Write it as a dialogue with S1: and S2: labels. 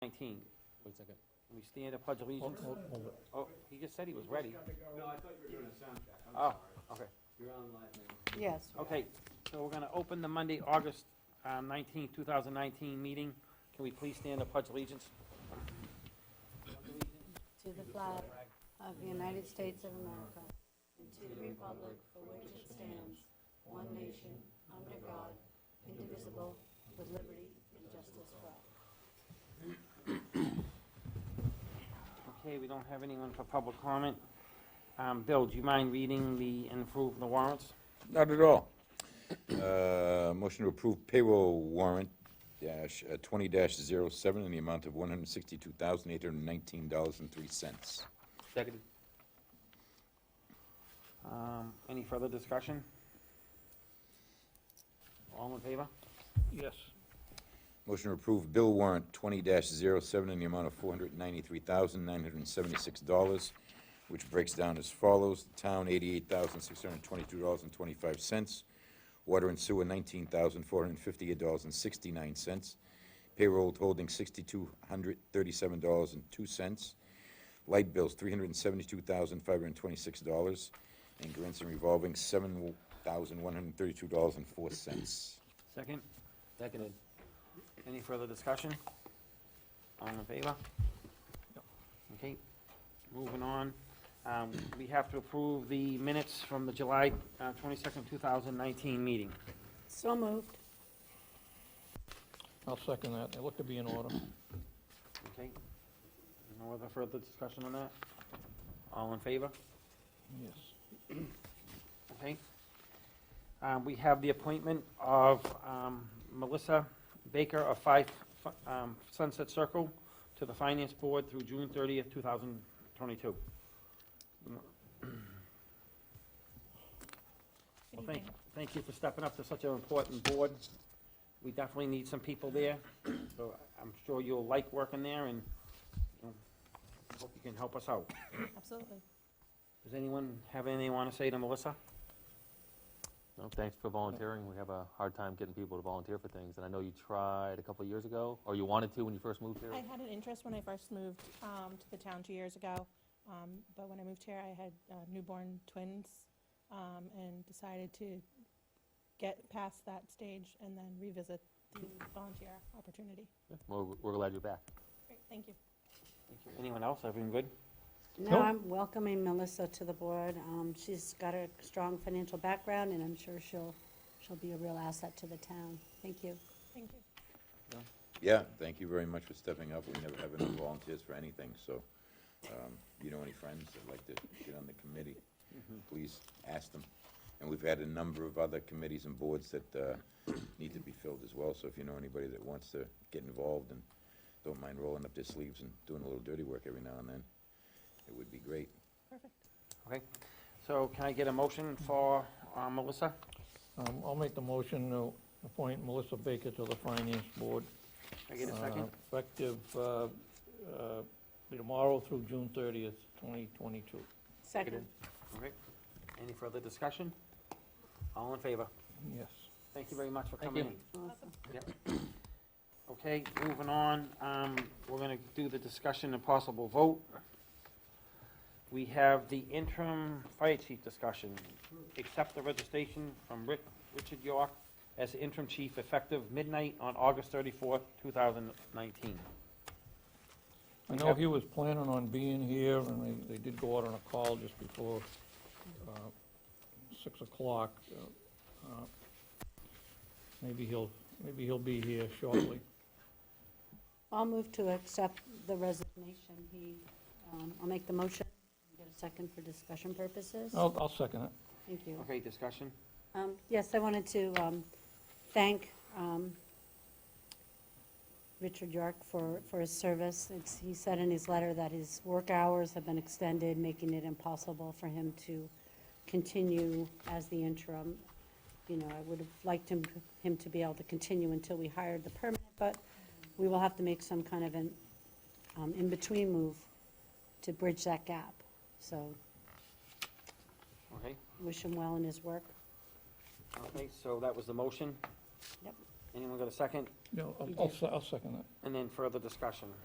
S1: King.
S2: Wait a second.
S1: Can we stand a pledge allegiance? Oh, he just said he was ready.
S3: No, I thought you were doing a sound check. I'm
S1: Oh,
S3: sorry.
S1: okay.
S3: You're on live now.
S4: Yes.
S1: Okay, so we're gonna open the Monday, August uh, nineteenth, two thousand nineteen meeting. Can we please stand a pledge allegiance?
S4: To the flag of the United States of America and to the republic for which it stands, one nation, under God, indivisible, with liberty and justice for all.
S1: Okay, we don't have anyone for public comment. Um, Bill, do you mind reading the, and approve the warrants?
S5: Not at all. Uh, Motion to approve payroll warrant dash, uh, twenty dash zero seven in the amount of one hundred sixty-two thousand, eight hundred nineteen dollars and three cents.
S2: Second.
S1: Um, any further discussion? All in favor?
S6: Yes,
S5: Motion to approve bill warrant twenty dash zero seven in the amount of four hundred ninety-three thousand, nine hundred seventy-six dollars, which breaks down as follows. The Town, eighty-eight thousand, six hundred twenty-two dollars and twenty-five cents. Water and sewer, nineteen thousand, four hundred fifty-eight dollars and sixty-nine cents. Payroll holding, sixty-two hundred thirty-seven dollars and two cents. Light bills, three hundred and seventy-two thousand, five hundred and twenty-six dollars. And grants and revolving, seven thousand, one hundred thirty-two dollars and four cents.
S1: Second,
S2: Seconded.
S1: any further discussion? All in favor? Okay, moving on. Um, we have to approve the minutes from the July, uh, twenty-second, two thousand nineteen meeting.
S4: So moved.
S6: I'll second that. They look to be in order.
S1: Okay? No other further discussion on that? All in favor?
S6: Yes.
S1: Okay. Um, we have the appointment of, um, Melissa Baker of Five, um, Sunset Circle to the Finance Board through June thirtieth, two thousand twenty-two. Well, thank, thank you for stepping up to such an important board. We definitely need some people there, so I'm sure you'll like working there and, you know, hope you can help us out.
S7: Absolutely.
S1: Does anyone have anything they wanna say to Melissa?
S2: No, thanks for volunteering. We have a hard time getting people to volunteer for things, and I know you tried a couple of years ago, or you wanted to when you first moved here.
S7: I had an interest when I first moved um, to the town two years ago, um, but when I moved here, I had uh, newborn twins um, and decided to get past that stage and then revisit the volunteer opportunity.
S2: We're, we're glad you're back.
S7: Great, Thank you.
S1: Anyone else? Everything good?
S6: Nope.
S4: Now I'm welcoming Melissa to the board. Um, She's got a strong financial background, and I'm sure she'll, she'll be a real asset to the town. Thank you.
S7: Thank you.
S5: Yeah, thank you very much for stepping up. We never have any volunteers for anything, so, um, you know, any friends that'd like to get on the committee, please ask them. And we've had a number of other committees and boards that, uh, need to be filled as well, so if you know anybody that wants to get involved and don't mind rolling up their sleeves and doing a little dirty work every now and then, it would be great.
S7: Perfect.
S1: Okay, so can I get a motion for uh, Melissa?
S6: Um, I'll make the motion to appoint Melissa Baker to the Finance Board.
S1: Can I get a second?
S6: uh, Effective uh, uh, tomorrow through June 30th, 2022.
S4: Second.
S1: Okay, any further discussion? All in favor?
S6: Yes.
S1: Thank you very much for
S2: Thank
S1: coming
S2: you.
S1: in. Okay, moving on, um, we're gonna do the discussion and possible vote. We have the interim fire chief discussion. Accept the registration from Rick, Richard York as interim chief effective midnight on August thirty-fourth, two thousand nineteen.
S6: I know he was planning on being here, and they, they did go out on a call just before uh, 6 o'clock. uh, uh, Maybe he'll, maybe he'll be here shortly.
S4: I'll move to accept the resignation. He, um, I'll make the motion. Get a second for discussion purposes.
S6: I'll, I'll second it.
S4: Thank you.
S1: Okay, discussion?
S4: Um, Yes, I wanted to um, thank um, Richard York for, for his service. It's- He said in his letter that his work hours have been extended, making it impossible for him to continue as the interim. You know, I would have liked him, him to be able to continue until we hired the permanent, but we will have to make some kind of an um, in-between move to bridge that gap. So
S1: Okay,
S4: wish him well in his work.
S1: okay, so that was the motion.
S4: Yep.
S1: Anyone got a second?
S6: No, I'll- I'll, se- I'll second that.
S1: And then further discussion.